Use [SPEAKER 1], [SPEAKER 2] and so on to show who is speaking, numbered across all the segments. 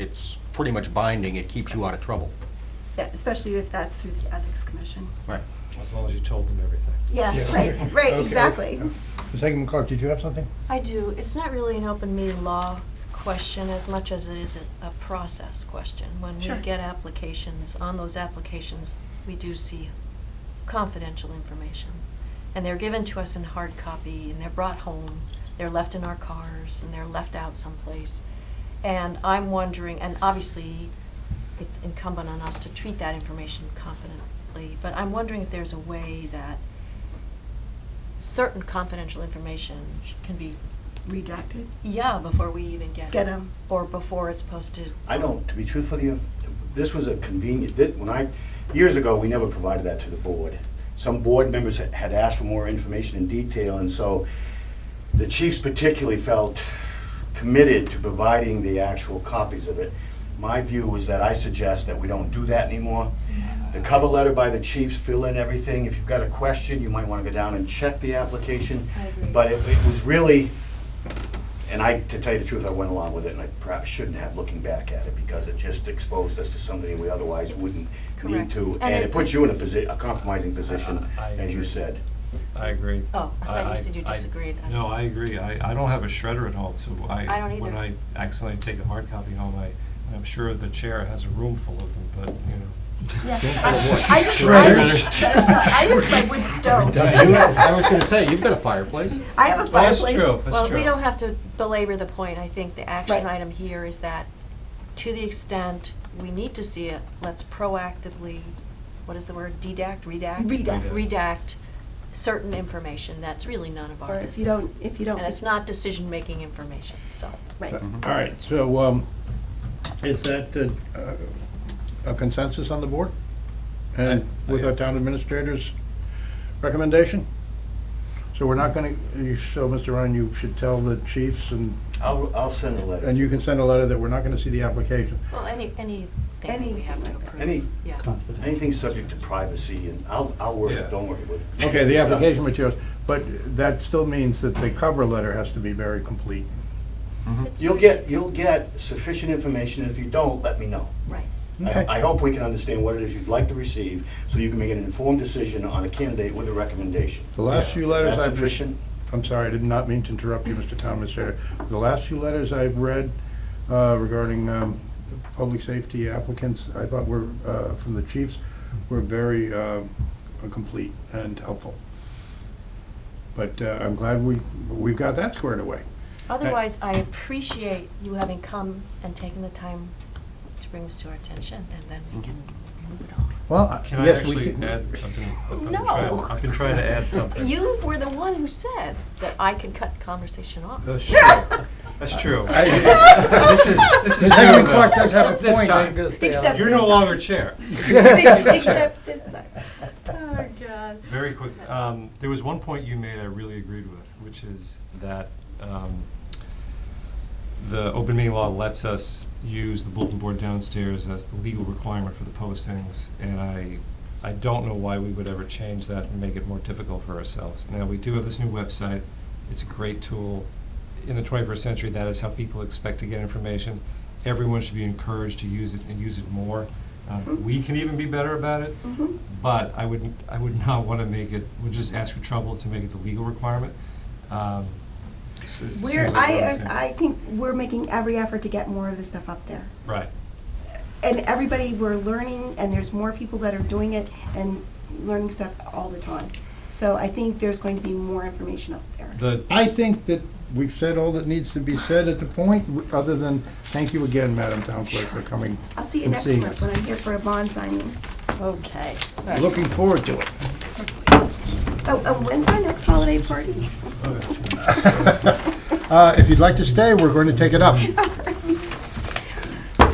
[SPEAKER 1] it's pretty much binding, it keeps you out of trouble.
[SPEAKER 2] Yeah, especially if that's through the Ethics Commission.
[SPEAKER 1] Right.
[SPEAKER 3] As long as you told them everything.
[SPEAKER 2] Yeah, right, right, exactly.
[SPEAKER 4] Ms. Hagan Clark, did you have something?
[SPEAKER 5] I do. It's not really an open meeting law question as much as it is a, a process question. When we
[SPEAKER 2] Sure.
[SPEAKER 5] get applications, on those applications, we do see confidential information. And they're given to us in hard copy, and they're brought home, they're left in our cars, and they're left out someplace. And I'm wondering, and obviously, it's incumbent on us to treat that information confidently, but I'm wondering if there's a way that certain confidential information sh- can be,
[SPEAKER 2] Redacted.
[SPEAKER 5] yeah, before we even get it.
[SPEAKER 2] Get 'em.
[SPEAKER 5] Or before it's posted.
[SPEAKER 6] I don't, to be truthful to you, this was a convenient, thi- when I, years ago, we never provided that to the board. Some board members had- had asked for more information in detail, and so the chiefs particularly felt committed to providing the actual copies of it. My view was that I suggest that we don't do that anymore. The cover letter by the chiefs, fill in everything. If you've got a question, you might want to go down and check the application.
[SPEAKER 5] I agree.
[SPEAKER 6] But it it was really, and I, to tell you the truth, I went along with it, and I perhaps shouldn't have, looking back at it, because it just exposed us to something we otherwise
[SPEAKER 5] It's-
[SPEAKER 6] wouldn't
[SPEAKER 5] it's
[SPEAKER 6] need
[SPEAKER 5] correct.
[SPEAKER 6] to.
[SPEAKER 5] And
[SPEAKER 6] And
[SPEAKER 5] it-
[SPEAKER 6] it puts you in a posi, a compromising position,
[SPEAKER 3] I- I
[SPEAKER 6] as you
[SPEAKER 3] agree.
[SPEAKER 6] said.
[SPEAKER 3] I agree.
[SPEAKER 5] Oh, I thought you said you
[SPEAKER 3] I- I-
[SPEAKER 5] disagreed. I was
[SPEAKER 3] No, I
[SPEAKER 5] like-
[SPEAKER 3] agree. I, I don't have a shredder at home, so I.
[SPEAKER 5] I don't either.
[SPEAKER 3] When I accidentally take a hard copy home, I, I'm sure the chair has a room full of them, but, you know.
[SPEAKER 2] Yeah.
[SPEAKER 3] Oh, boy.
[SPEAKER 2] I I just, I just,
[SPEAKER 3] Shredders.
[SPEAKER 2] I just like wood stove.
[SPEAKER 1] I was gonna say, you've got a fireplace.
[SPEAKER 2] I have a
[SPEAKER 3] Well, that's
[SPEAKER 2] fireplace.
[SPEAKER 3] true, that's
[SPEAKER 5] Well,
[SPEAKER 3] true.
[SPEAKER 5] we don't have to belabor the point. I think the action
[SPEAKER 2] Right.
[SPEAKER 5] item here is that, to the extent we need to see it, let's proactively, what is the word, dedact, redact?
[SPEAKER 2] Redact.
[SPEAKER 5] Redact certain information that's really none of
[SPEAKER 2] Or
[SPEAKER 5] our
[SPEAKER 2] if
[SPEAKER 5] business.
[SPEAKER 2] you don't- if you don't-
[SPEAKER 5] And it's not decision-making information, so.
[SPEAKER 2] Right.
[SPEAKER 3] Mm-hmm.
[SPEAKER 4] All right, so um, is that uh, a consensus on the board? And
[SPEAKER 3] I-
[SPEAKER 4] with our town administrator's recommendation? So we're not going to, so Mr. Ryan, you should tell the chiefs and,
[SPEAKER 6] I'll, I'll send a letter.
[SPEAKER 4] and you can send a letter that we're not going to see the application.
[SPEAKER 5] Well, any, anything that we
[SPEAKER 2] Anything
[SPEAKER 5] have to
[SPEAKER 2] like that.
[SPEAKER 5] approve.
[SPEAKER 6] Any-
[SPEAKER 5] Yeah.
[SPEAKER 6] Anything subject to privacy, and I'll, I'll work
[SPEAKER 3] Yeah.
[SPEAKER 6] it, don't worry about it.
[SPEAKER 4] Okay, the
[SPEAKER 6] It's not-
[SPEAKER 4] application materials, but that still means that the cover letter has to be very complete.
[SPEAKER 6] You'll get, you'll get sufficient information, and if you don't, let me know.
[SPEAKER 5] Right.
[SPEAKER 4] Okay.
[SPEAKER 6] I I hope we can understand what it is you'd like to receive, so you can make an informed decision on a candidate with a recommendation.
[SPEAKER 4] The last
[SPEAKER 3] Yeah.
[SPEAKER 4] few
[SPEAKER 6] Is
[SPEAKER 4] letters
[SPEAKER 6] that
[SPEAKER 4] I've
[SPEAKER 6] sufficient?
[SPEAKER 4] received. I'm sorry, I did not mean to interrupt you, Mr. Town Administrator. The last few letters I've read uh, regarding um, public safety applicants, I thought were, uh, from the chiefs, were very uh, complete and helpful. But uh, I'm glad we, we've got that squared away.
[SPEAKER 5] Otherwise, I appreciate you having come and taken the time to bring this to our attention, and then we can move it on.
[SPEAKER 4] Well, uh,
[SPEAKER 3] Can I
[SPEAKER 4] yes, we
[SPEAKER 3] actually
[SPEAKER 4] can.
[SPEAKER 3] add, I've been, I've been
[SPEAKER 5] No.
[SPEAKER 3] trying, I've been trying to add something.
[SPEAKER 5] You were the one who said that I could cut conversation off.
[SPEAKER 3] That's true. That's true.
[SPEAKER 4] I-
[SPEAKER 3] This is, this is.
[SPEAKER 4] Ms. Hagan
[SPEAKER 3] new, though.
[SPEAKER 4] Clark does have a
[SPEAKER 3] This
[SPEAKER 4] point.
[SPEAKER 3] time,
[SPEAKER 2] Except
[SPEAKER 3] you're
[SPEAKER 2] this
[SPEAKER 3] no
[SPEAKER 2] time.
[SPEAKER 3] longer chair.
[SPEAKER 2] Except this time.
[SPEAKER 5] Oh, God.
[SPEAKER 3] Very quick, um, there was one point you made I really agreed with, which is that, um, the open meeting law lets us use the bulletin board downstairs as the legal requirement for the postings, and I, I don't know why we would ever change that and make it more difficult for ourselves. Now, we do have this new website, it's a great tool. In the twenty-first century, that is how people expect to get information. Everyone should be encouraged to use it and use it more. Uh, we can even be better about
[SPEAKER 2] Mm-hmm.
[SPEAKER 3] it, but I would, I would not wanna make it, would just ask for trouble to make it the legal requirement. Um, s- it
[SPEAKER 2] We're,
[SPEAKER 3] seems like what I'm
[SPEAKER 2] I,
[SPEAKER 3] saying.
[SPEAKER 2] I think we're making every effort to get more of this stuff up there.
[SPEAKER 3] Right.
[SPEAKER 2] And everybody, we're learning, and there's more people that are doing it and learning stuff all the time. So I think there's going to be more information up there.
[SPEAKER 3] The,
[SPEAKER 4] I think that we've said all that needs to be said at the point, other than, thank you again, Madam Town Clerk, for coming
[SPEAKER 2] I'll see you
[SPEAKER 4] and
[SPEAKER 2] next
[SPEAKER 4] seeing
[SPEAKER 2] month when I'm here for a bond signing.
[SPEAKER 5] Okay.
[SPEAKER 4] us. Looking forward to it.
[SPEAKER 2] Oh, oh, when's our next holiday party?
[SPEAKER 4] Uh, If you'd like to stay, we're going to take it up.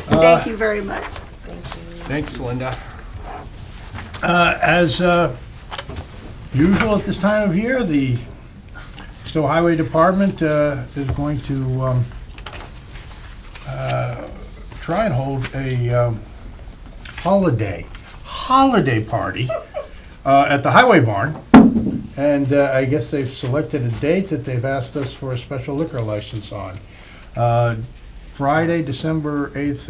[SPEAKER 2] Thank you very much.
[SPEAKER 1] Thanks, Linda.
[SPEAKER 4] Uh, As uh, usual at this time of year, the Stowe Highway Department uh, is going to um, uh, try and hold a um, holiday, holiday party uh, at the Highway Barn. And uh, I guess they've selected a date that they've asked us for a special liquor license on. Uh, Friday, December 8th